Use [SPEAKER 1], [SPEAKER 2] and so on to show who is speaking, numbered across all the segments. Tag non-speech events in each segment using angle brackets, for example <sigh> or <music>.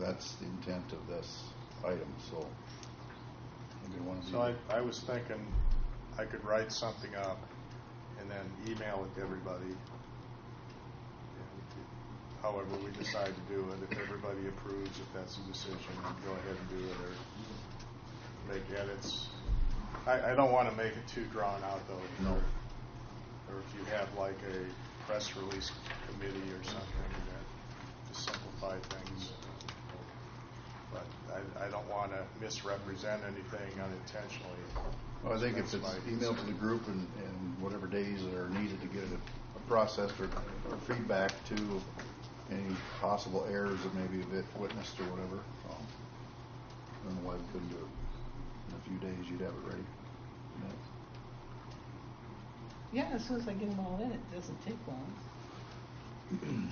[SPEAKER 1] that's the intent of this item, so. maybe one of
[SPEAKER 2] So I,
[SPEAKER 1] you-
[SPEAKER 2] I was thinking I could write something up and then email it to everybody. And However, we decide to do it, if everybody approves, if that's the decision, then go ahead and do it or make edits. I, I don't want to make it too drawn out though. if
[SPEAKER 1] No.
[SPEAKER 2] you're- Or if you have like a press release committee or something that to simplify things. But I, I don't want to misrepresent anything unintentionally.
[SPEAKER 1] Well, I think if
[SPEAKER 2] That's
[SPEAKER 1] it's
[SPEAKER 2] my
[SPEAKER 1] emailed to the group and, and whatever days that are needed to get it processed or, or feedback to any possible errors that maybe have been witnessed or whatever, um, I don't know why we couldn't do it. In a few days, you'd have it ready.
[SPEAKER 3] Yeah, as soon as I get them all in, it doesn't take long. Can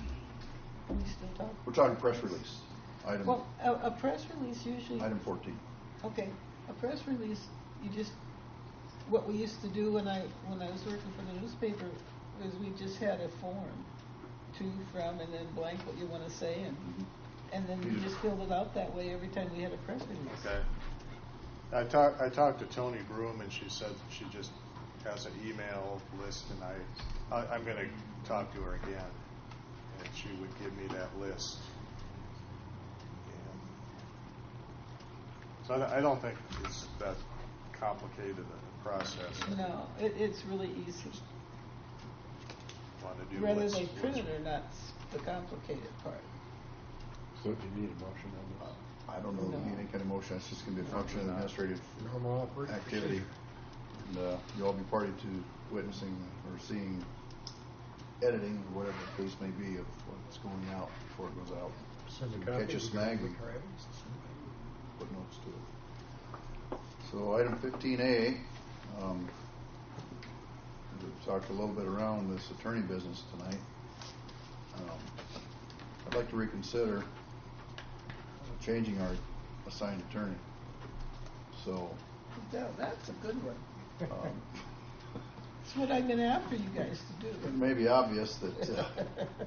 [SPEAKER 3] we still talk?
[SPEAKER 1] <clears throat> We're talking press release, item,
[SPEAKER 3] Well, a, a press release usually,
[SPEAKER 1] item fourteen.
[SPEAKER 3] okay, a press release, you just, what we used to do when I, when I was working for the newspaper was we just had a form, to, from, and then blank what you want to say, and,
[SPEAKER 1] Mm-hmm.
[SPEAKER 3] and then you just filled it out that way every time we had a press release.
[SPEAKER 2] Okay. I talked, I talked to Tony Broom and she said she just has an email list and I, I, I'm gonna talk to her again. And she would give me that list. And So I, don't- I don't think it's that complicated a process.
[SPEAKER 3] No, it, it's really easy,
[SPEAKER 2] Want to do
[SPEAKER 3] whether
[SPEAKER 2] what's-
[SPEAKER 3] they print it
[SPEAKER 2] what's-
[SPEAKER 3] or not's the complicated part.
[SPEAKER 4] So do you need a motion on
[SPEAKER 1] I don't know, if we need any kind of motion, it's just gonna be a function of administrative
[SPEAKER 4] this? Normal operating
[SPEAKER 1] activity. And, uh, you all be party to witnessing or seeing editing, or whatever the case may be, of what's going out before it goes out.
[SPEAKER 4] Send
[SPEAKER 1] a copy Catch a to snag. Rick Put notes to it. So item fifteen A, um, we've talked a little bit around this attorney business tonight. Um, I'd like to reconsider changing our assigned attorney. So,
[SPEAKER 3] Yeah, that's a good one.
[SPEAKER 1] um,
[SPEAKER 3] That's what I've been after you guys to
[SPEAKER 1] It
[SPEAKER 3] do.
[SPEAKER 1] may be obvious that
[SPEAKER 3] <laughs>
[SPEAKER 1] uh,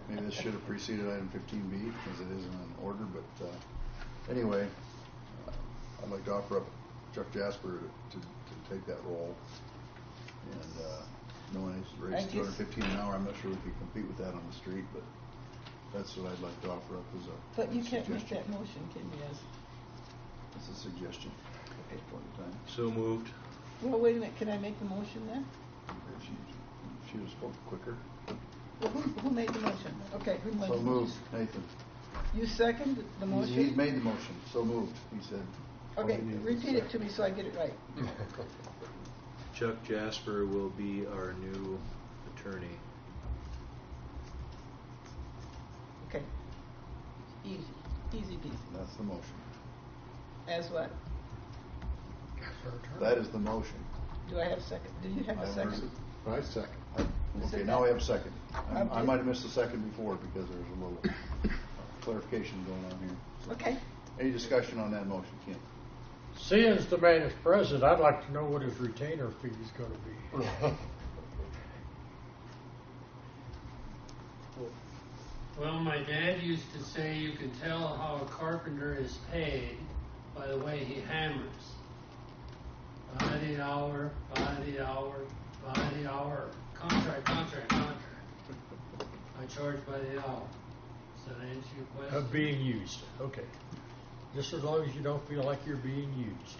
[SPEAKER 1] maybe this should have preceded item 15B because it isn't in order, but uh, anyway, uh, I'd like to offer up Chuck Jasper to, to take that role. And uh, knowing he's raised
[SPEAKER 3] Thank you.
[SPEAKER 1] 215 an hour, I'm not sure we could compete with that on the street, but that's what I'd like to offer up as a
[SPEAKER 3] But you can't make
[SPEAKER 1] suggestion.
[SPEAKER 3] that motion, can you guys?
[SPEAKER 1] It's a suggestion at this point in time.
[SPEAKER 5] So moved.
[SPEAKER 3] Well, wait a minute, can I make the motion then?
[SPEAKER 1] If she, if she would have spoken quicker.
[SPEAKER 3] Well, who, who made the motion? Okay, who made the
[SPEAKER 1] So moved,
[SPEAKER 3] motion?
[SPEAKER 1] Nathan.
[SPEAKER 3] You second the
[SPEAKER 1] He's- He's
[SPEAKER 3] motion?
[SPEAKER 1] made the motion, so moved, he said.
[SPEAKER 3] Okay,
[SPEAKER 4] Well, we need to
[SPEAKER 3] repeat it to me so I get it right.
[SPEAKER 5] Chuck Jasper will be our new attorney.
[SPEAKER 3] Okay. Easy, easy peasy.
[SPEAKER 1] That's the motion.
[SPEAKER 3] As what?
[SPEAKER 1] That is the motion.
[SPEAKER 3] Do I have a second? Do you have
[SPEAKER 1] I
[SPEAKER 3] a
[SPEAKER 1] haven't heard
[SPEAKER 3] second?
[SPEAKER 1] it. I second. Okay, now we have a second. I- I
[SPEAKER 3] Okay.
[SPEAKER 1] might have missed the second before because there was a little clarification going on here.
[SPEAKER 3] Okay.
[SPEAKER 1] Any discussion on that motion, Ken?
[SPEAKER 4] Seeing as the man is present, I'd like to know what his retainer fee is gonna be. <laughs>
[SPEAKER 1] <laughs>
[SPEAKER 6] Well, my dad used to say you can tell how a carpenter is paid by the way he hammers. By the hour, by the hour, by the hour, contract, contract, contract. I charge by the hour. Does that answer your question?
[SPEAKER 4] Of being used, okay. Just as long as you don't feel like you're being used.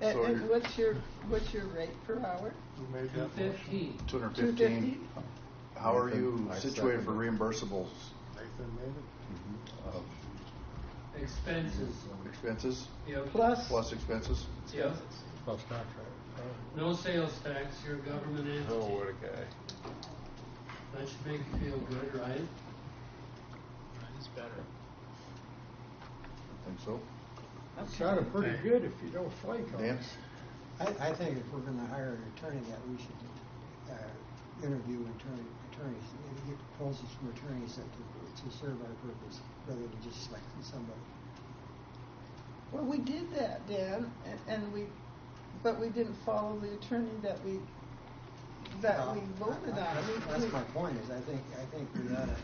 [SPEAKER 3] And,
[SPEAKER 1] So
[SPEAKER 3] and
[SPEAKER 1] you're-
[SPEAKER 3] what's your, what's your rate per hour?
[SPEAKER 2] Who made
[SPEAKER 6] Two
[SPEAKER 2] that motion?
[SPEAKER 6] fifteen.
[SPEAKER 1] Two hundred
[SPEAKER 3] 250?
[SPEAKER 1] fifteen. How are you
[SPEAKER 4] Nathan, I
[SPEAKER 1] situated for
[SPEAKER 4] second it.
[SPEAKER 1] reimbursables
[SPEAKER 2] Nathan made it?
[SPEAKER 1] of
[SPEAKER 6] Expenses.
[SPEAKER 1] expenses,
[SPEAKER 6] Yep.
[SPEAKER 3] Plus?
[SPEAKER 1] plus expenses?
[SPEAKER 6] Yep.
[SPEAKER 4] Plus contract.
[SPEAKER 6] No sales tax, you're a government entity.
[SPEAKER 2] a guy.
[SPEAKER 6] That should make you feel good, right?
[SPEAKER 1] I think so.
[SPEAKER 4] That sounded pretty good if you don't flake on
[SPEAKER 1] Dan?
[SPEAKER 4] it.
[SPEAKER 7] I, I think if we're gonna hire an attorney, that we should, uh, interview attorney, attorneys, and get proposals from attorneys that to, to serve our purpose, rather than just selecting somebody.
[SPEAKER 3] Well, we did that, Dan, and, and we, but we didn't follow the attorney that we,
[SPEAKER 7] Um,
[SPEAKER 3] that we voted on.
[SPEAKER 7] That's-
[SPEAKER 3] We- we-
[SPEAKER 7] That's my point, is I think, I think we ought to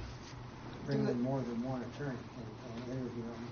[SPEAKER 7] bring in more than one attorney and, and interview them.